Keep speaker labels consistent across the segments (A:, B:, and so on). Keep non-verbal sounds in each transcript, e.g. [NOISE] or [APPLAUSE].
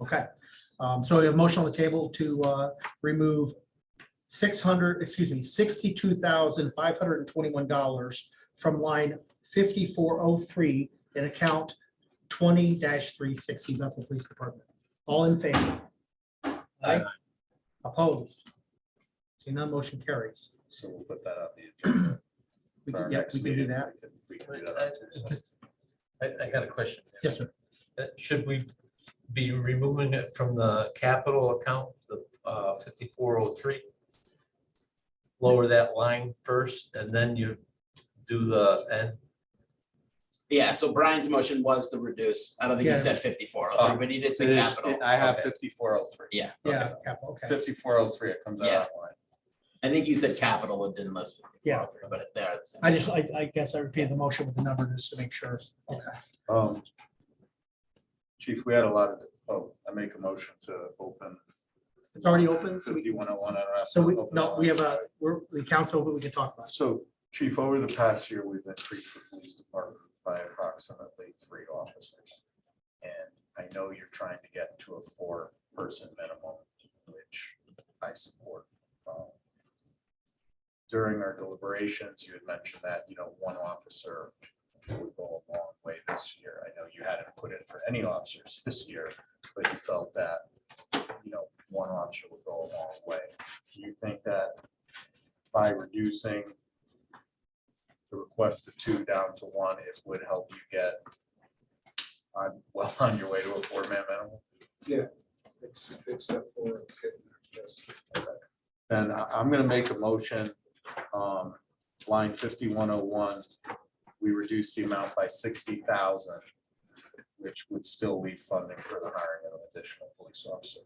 A: Okay, um, so we have a motion on the table to, uh, remove six hundred, excuse me, sixty-two thousand five hundred and twenty-one dollars from line fifty-four oh three in account twenty three sixty Bethel Police Department. All in favor? Aye. Opposed? Seeing none, motion carries.
B: So we'll put that on the agenda.
A: We
B: for
A: can,
B: our
A: yeah,
B: next
A: we can do
B: meeting.
A: that.
B: We can- we can
C: Wait,
B: do that on Tuesday.
A: Just-
C: I, I got a question.
A: Yes, sir.
C: Uh, Should we be removing it from the capital account, the fifty-four oh three? Lower that line first and then you do the, and,
D: Yeah, so Brian's motion was to reduce. I don't think
A: Yeah.
D: he said fifty-four,
B: Oh,
D: but he did
B: It
D: say
B: is,
D: capital.
B: I have
D: Okay.
B: fifty-four oh three.
D: Yeah,
A: Yeah, cap- okay.
B: Fifty-four oh three, it comes out
D: Yeah.
B: that line.
D: I think you said capital and didn't list
A: Yeah.
D: fifty-four, but it- there. it's-
A: I just, I, I guess I repeated the motion with the number just to make sure. Okay.
B: Um, Chief, we had a lot of, oh, I make a motion to open
A: It's already open, so we
B: fifty-one oh one.
A: So we, no, we have a, we're, the council, but we can talk about it.
B: So Chief, over the past year, we've increased the police department by approximately three officers. And I know you're trying to get to a four-person minimum, which I support. Um, During our deliberations, you had mentioned that, you know, one officer would go a long way this year. I know you hadn't put in for any officers this year, but you felt that, you know, one officer would go a long way. Do you think that by reducing the request to two down to one, it would help you get on, well, [LAUGHS] on your way to a four-man minimum.
E: It's, it's that for, yes.
B: Then I, I'm gonna make a motion, um, line fifty-one oh one, we reduce the amount by sixty thousand, which would still leave funding for the hiring of an additional police officer.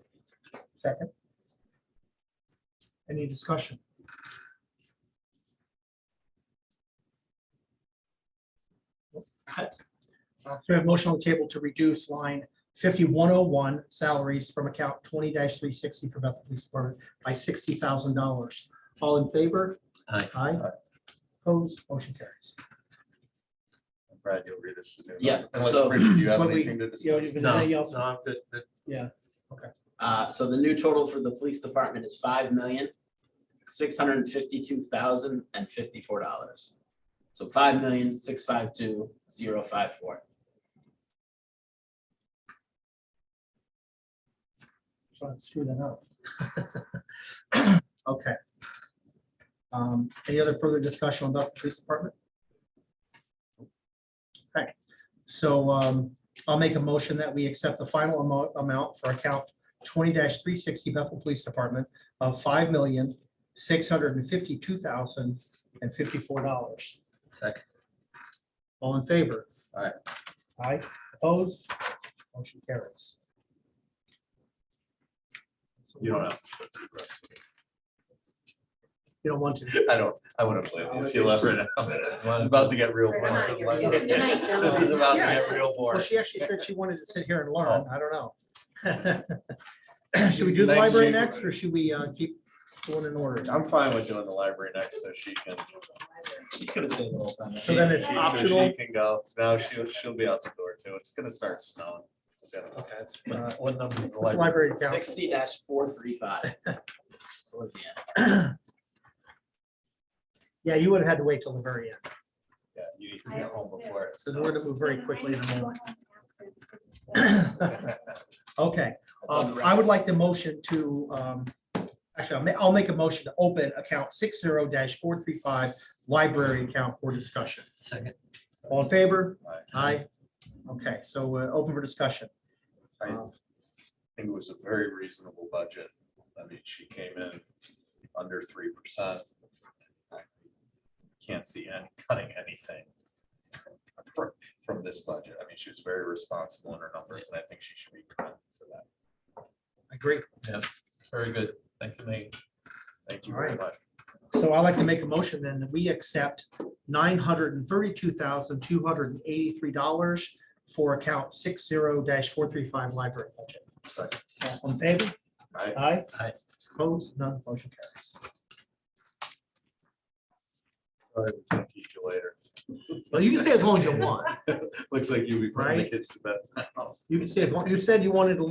A: Second. Any discussion? Uh, So we have motion on the table to reduce line fifty-one oh one salaries from account twenty three sixty for Bethel Police Department by sixty thousand dollars. All in favor?
C: Aye.
A: Aye. Opposed, motion carries.
B: Brad, you'll read this. to me.
D: Yeah,
B: Unless,
D: so-
B: Richard, do you have
A: When we-
B: anything to
A: You know,
B: discuss?
A: if there's
C: no,
A: anything
C: no,
A: else-
C: I'm good, good.
D: Uh, so the new total for the police department is five million, six hundred and fifty-two thousand and fifty-four dollars. So five million, six five two, zero five four.
A: Trying to screw that up. Okay. Um, Any other further discussion on Bethel Police Department? Okay, so um, I'll make a motion that we accept the final amo- amount for account twenty three sixty Bethel Police Department of five million, six hundred and fifty-two thousand and fifty-four dollars.
C: Second.
A: All in favor?
B: Aye.
A: Aye, opposed? Motion carries.
B: You don't have to. say
A: You don't want to.
B: it. I don't, I wouldn't believe you if you left right now. It's about to get real. boring.
C: [LAUGHS]
B: This is about to get real
A: Well,
B: boring.
A: she actually said she wanted to sit here and learn.
B: Oh.
A: I don't know. [LAUGHS] [CLEARS THROAT] Should we do the
B: Thanks,
A: library
B: Chief.
A: next or should we uh, keep going in order?
B: I'm fine with doing the library next, so she can.
D: She's gonna stay the whole time.
A: So then it's
B: she- so
A: optional?
B: She can go. Now she'll, she'll be out the door too. It's gonna start snowing. We've got to-
A: Okay, it's, uh,
B: What number is the
A: it's
B: library?
A: Library account.
D: Sixty four three
A: [LAUGHS]
D: five.
A: Yeah, you would have had to wait till the very end.
B: Yeah, you need to get home before it
A: So we're gonna
B: snows.
A: move very quickly in a [CLEARS THROAT] moment. [COUGHS] [LAUGHS] Okay, um, I would like the motion to, um, actually, I'll ma- I'll make a motion to open account six zero four three five, library account for discussion.
C: Second.
A: All in favor?
B: Aye.
A: Aye. Okay, so uh, open for discussion.
B: [LAUGHS]
A: Um,
B: I think it was a very reasonable budget. I mean, she came in under three percent. Can't see any [LAUGHS] cutting anything from, from this budget. I mean, she was very responsible in her numbers and I think she should be commended for that.
A: I agree.
C: Very good. Thank you, Nate.
B: Thank you very
A: Alright.
B: much.
A: So I'd like to make a motion then that we accept nine hundred and thirty-two thousand, two hundred and eighty-three dollars for account six zero four three five library budget.
B: Second.
A: All in favor?
B: Aye.
A: Aye.
C: Aye.
A: Opposed? None. Motion carries.
B: All right, we'll Talk to you later.
A: Well, you can stay as long as you want.
B: Looks like you'll be putting the
A: Right?
B: kids to bed.
A: You can stay as long. You said you wanted to